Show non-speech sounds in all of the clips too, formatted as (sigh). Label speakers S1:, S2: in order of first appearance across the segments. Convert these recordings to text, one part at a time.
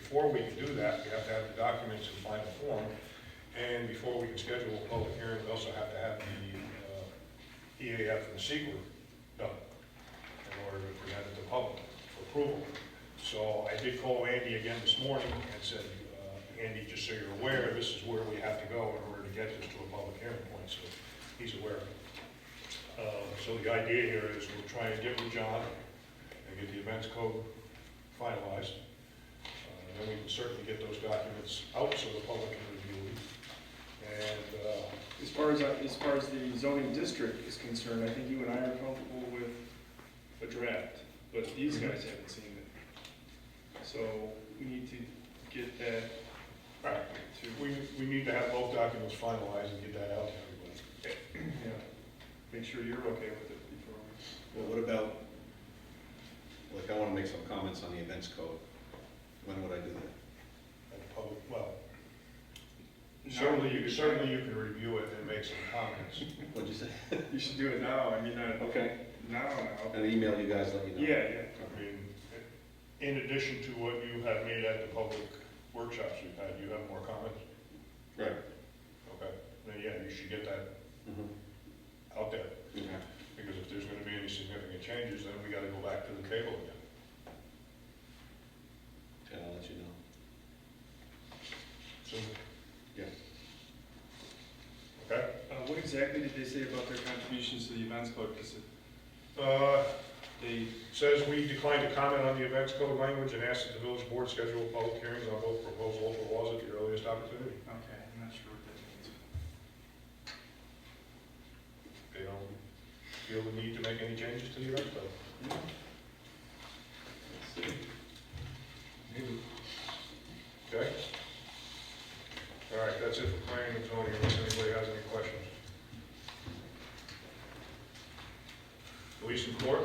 S1: before we can do that, we have to have the documents in final form. And before we can schedule a public hearing, we also have to have the uh, EAF and the SEQA done in order to present it to public for approval. So I did call Andy again this morning and said, uh, Andy, just so you're aware, this is where we have to go in order to get this to a public hearing point, so he's aware of it. Uh, So the idea here is we'll try and get with John and get the events code finalized. Uh, and Then we can certainly get those documents out so the public can review them. And uh,
S2: As far as, as far as the zoning district is concerned, I think you and I are comfortable with a draft, but these guys haven't seen it. So we need to get that
S1: all right,
S2: to,
S1: we, we need to have both documents finalized and get that out to everybody.
S2: yeah, make sure you're okay with it before. we-
S3: Well, what about, like, I wanna make some comments on the events code. When would I do that?
S1: And the public, well, certainly, you certainly you can review it and make some comments.
S3: What'd you say?
S2: (laughs) You should do it now, I mean, not,
S3: Okay.
S2: now, now.
S3: And email you guys, let you know.
S2: Yeah, yeah,
S1: I mean, in addition to what you have made at the public workshops you've had, you have more comments?
S3: Right.
S1: Okay, then yeah, you should get that
S3: Mhm.
S1: out there,
S3: Okay.
S1: because if there's gonna be any significant changes, then we gotta go back to the table again.
S3: Okay, I'll let you know.
S1: So,
S3: Yeah.
S1: okay?
S2: uh, what exactly did they say about their contributions to the events code, because
S1: Uh,
S2: they,
S1: says we decline to comment on the events code language and ask that the village board schedule public hearings on both proposed local laws at the earliest opportunity.
S2: okay, I'm not sure what that means.
S1: They don't feel the need to make any changes to the events code.
S2: Hmm?
S3: Let's see.
S1: Okay? All right, that's it for planning and zoning, unless anybody has any questions. Police and court?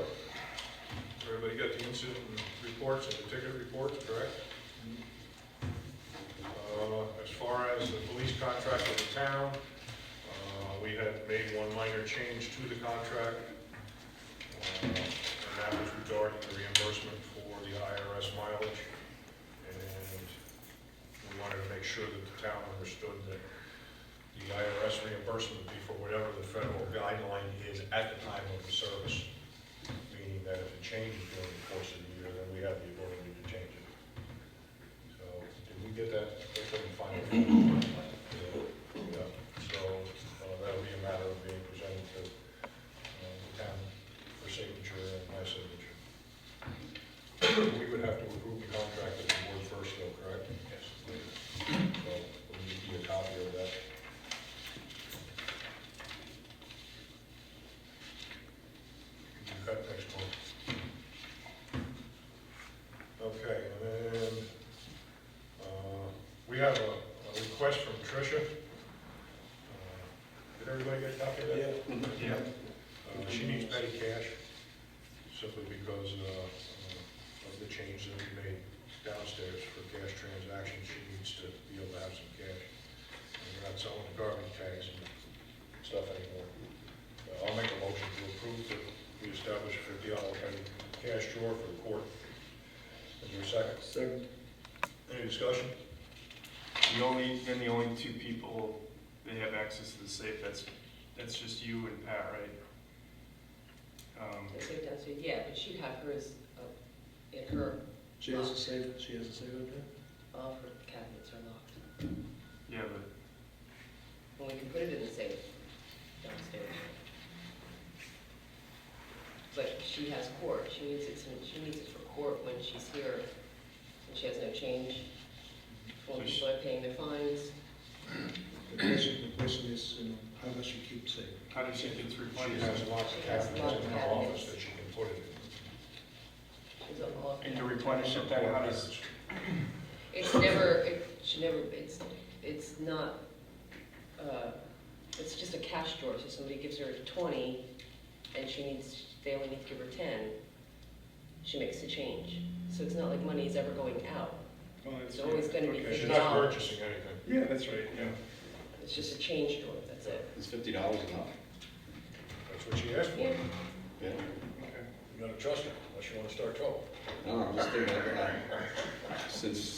S1: Everybody got the incident reports and the ticket reports, correct? Uh, As far as the police contract with the town, uh, we had made one minor change to the contract. uh, And that was regarding the reimbursement for the IRS mileage. And we wanted to make sure that the town understood that the IRS reimbursement would be for whatever the federal guideline is at the time of the service, meaning that if it changes during the course of the year, then we have the ability to change it. So, did we get that? I couldn't find it. Yeah, So, uh, that'll be a matter of being presented to uh, the town for signature and my signature. We would have to approve the contract at the board first, though, correct? Yes. So, we'll need a copy of that. You've got next one. Okay, and then, uh, we have a a request from Tricia. Uh, Did everybody get a copy of that?
S3: Mhm.
S2: Mm-hmm. Yeah.
S1: Uh, She needs petty cash, simply because uh, uh, of the change that we made downstairs for cash transactions. She needs to be able to have some cash. And We're not selling the garbage tags and stuff anymore. Uh, I'll make a motion to approve that we establish a fifty dollar petty cash drawer for the court. Is there a second?
S2: Second.
S1: Any discussion?
S2: The only, then the only two people that have access to the safe, that's, that's just you and Pat, right? Um,
S4: The safe downstairs, yeah, but she'd have hers uh, in her,
S5: She has a safe, she has a safe up there?
S4: all her cabinets are locked.
S2: yeah, but,
S4: Well, we can put it in the safe downstairs. But she has court, she needs it, to- she needs it for court when she's here, and she has no change. When
S2: So she-
S4: people are paying their fines,
S5: The question, the question is, you know, how does she keep safe?
S2: how does she get through
S1: She has
S2: replacement?
S1: lots of
S4: She has
S1: cabinets in
S4: lots
S1: her
S4: of
S1: office
S4: cabinets.
S1: that she can put it in.
S4: she's on lock.
S2: And to replenish it, then how does,
S4: It's never, it, she never, it's, it's not, uh, it's just a cash drawer, so somebody gives her twenty, and she needs, they only need to give her ten, she makes the change. So it's not like money is ever going out,
S2: oh, that's
S4: It's always
S2: right,
S4: gonna be
S2: okay.
S1: She's not purchasing anything.
S2: Yeah, that's right, yeah.
S4: it's just a change drawer, that's it.
S3: Is fifty dollars enough?
S1: That's what she asked for.
S4: Yeah,
S1: You
S3: Yeah.
S2: Okay.
S1: gotta trust her, unless you wanna start trouble.
S3: No, I'm just thinking, I- I- since